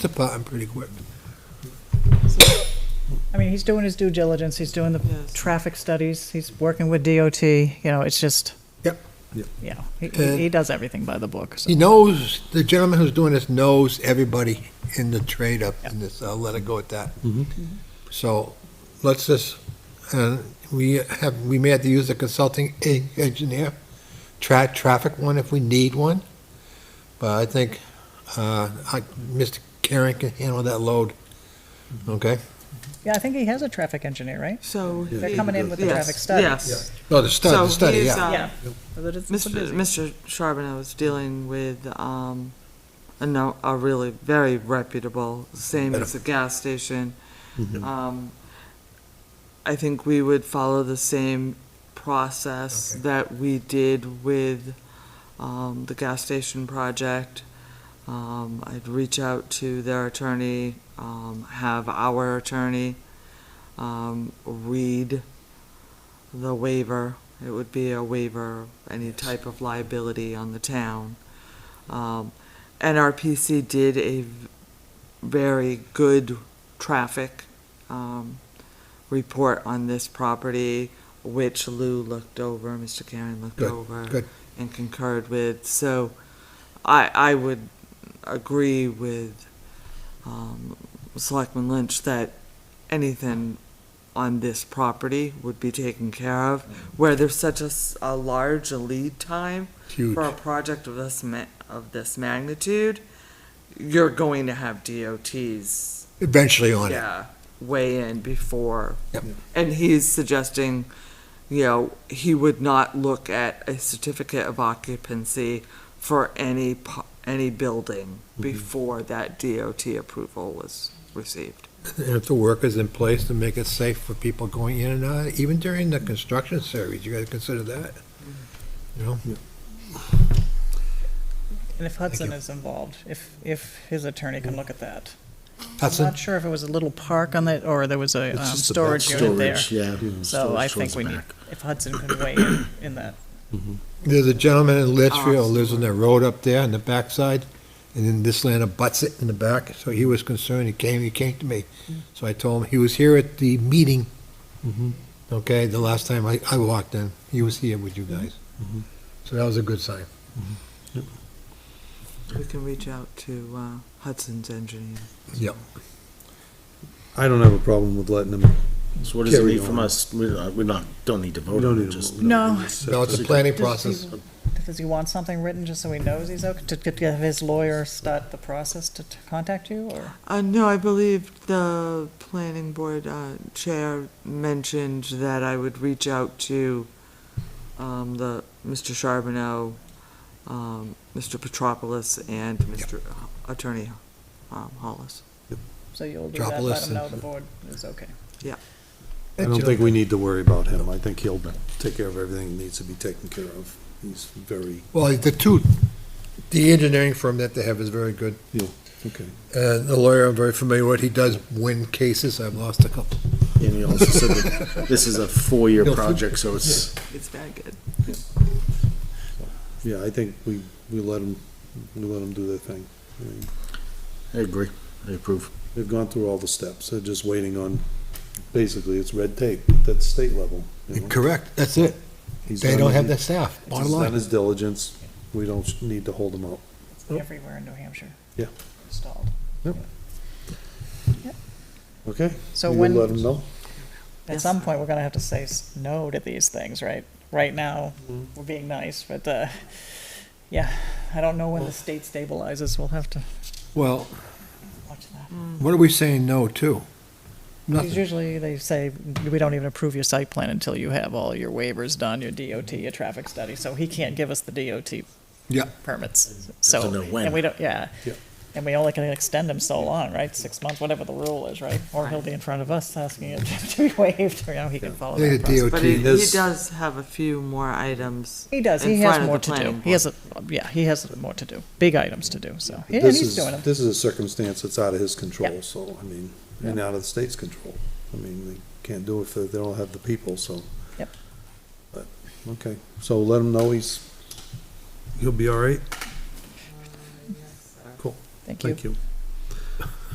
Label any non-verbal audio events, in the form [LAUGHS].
department pretty quick. I mean, he's doing his due diligence, he's doing the Yes. traffic studies, he's working with DOT, you know, it's just, Yep. you know, he, Uh, he he does everything by the book, so. He knows, the gentleman who's doing this knows everybody in the trade up in this, I'll let it go at that. So let's just, uh, we have, we may have to use a consulting e- engineer, tra- traffic one if we need one. But I think, uh, I, Mr. Karen can handle that load, okay? Yeah, I think he has a traffic engineer, right? So. They're coming in with the Yes, traffic study. Yes. No, the study, So the study, he's, yeah. uh, Yeah. Although it's- it's Mr. busy. Mr. Charbonneau is dealing with, um, a no, a really very reputable, same as the gas station. Um, I think we would follow the same process Okay. that we did with, um, the gas station project. Um, I'd reach out to their attorney, um, have our attorney, um, read the waiver. It would be a waiver, of any type of liability on the town. Um, NRPC did a v- very good traffic, um, report on this property, which Lou looked over, Mr. Karen looked Good, over good. and concurred with. So I, I would agree with um, Selectman Lynch that anything on this property would be taken care of. Where there's such a, s- a large lead time Huge. for a project of this ma- of this magnitude, you're going to have DOTs, Eventually on it. yeah, weigh in before Yep. and he's suggesting, you know, he would not look at a certificate of occupancy for any, pu- any building Mm-hmm. before that DOT approval was received. And if the work is in place to make it safe for people going in and out, even during the construction series, you gotta consider that. You know, And if Hudson is involved, if, if his attorney can look at that. I'm Hudson, not sure if it was a little park on that, or there was a, um, just storage unit there. Yeah. So I think we need, if Hudson could weigh in, in that. there's a gentleman in Litchfield, lives on that road up there on the backside, and then this land abuts it in the back, so he was concerned, he came, he came to me. So I told him, he was here at the meeting, Mm-hmm. okay, the last time I, I walked in, he was here with you Mm-hmm. guys. So that was a good sign. We can reach out to uh, Hudson's engineer. Yep. I don't have a problem with letting them. So what does it Carry need from on. us? We're not, we're not, don't need to We vote don't on it, need just. to. No. No, it's a planning process. Does he want something written just so he knows he's okay, to get have his lawyer start the process to to contact you, or? Uh, no, I believe the planning board uh, chair mentioned that I would reach out to um, the, Mr. Charbonneau, um, Mr. Petropoulos, and Mr. Attorney um, Hollis. So you'll do that, Metropolis let him know and- the board is okay. I don't think we need to worry about him. I think he'll take care of everything that needs to be taken care of. He's very, Well, the two, the engineering firm that they have is very good. okay. Uh, the lawyer, I'm very familiar with, he does win cases, I've lost a couple. And he also said that this is a four-year No, food- project, so it's, It's very good. Yeah, I think we, we let him, we let him do their thing. I mean, I agree, I approve. They've gone through all the steps. They're just waiting on, basically, it's red tape. That's state level. you know. Correct, that's it. He's They done don't his- have the staff, bottom He's done line. his diligence. We don't need to hold him up. It's Yep. Everywhere in New Hampshire. Oh. Yeah. Stalled. Okay? So You when- Let him know. At Yes. some point, we're gonna have to say s- no to these things, right? Right now, Mm-hmm. we're being nice, but, uh, yeah, I don't know Oh. when the state stabilizes, we'll have to Well, watch that. what are we saying no to? Because usually they say, we don't even approve your site plan until you have all your waivers done, your DOT, your traffic study, so he can't give us the DOT Yeah. permits, so. Doesn't know when. And we don't, yeah. Yeah. And we only can extend them so long, right? Six months, whatever the rule is, right? Or he'll be in front of us asking it [LAUGHS] to be waived, you know, he can follow They that the process. But he, DOT, he His- does have a few more items. He does, in he front has of more the to do. planning He has, a yeah, he has more to do, big items to do, so, yeah, and This he's is, doing them. this is a circumstance that's out of his Yeah. control, so, I mean, and out of the state's control. I mean, they can't do it if they they don't have the people, so. Yep. But, okay, so let him know he's, he'll be all right. Cool, Thank you. thank you.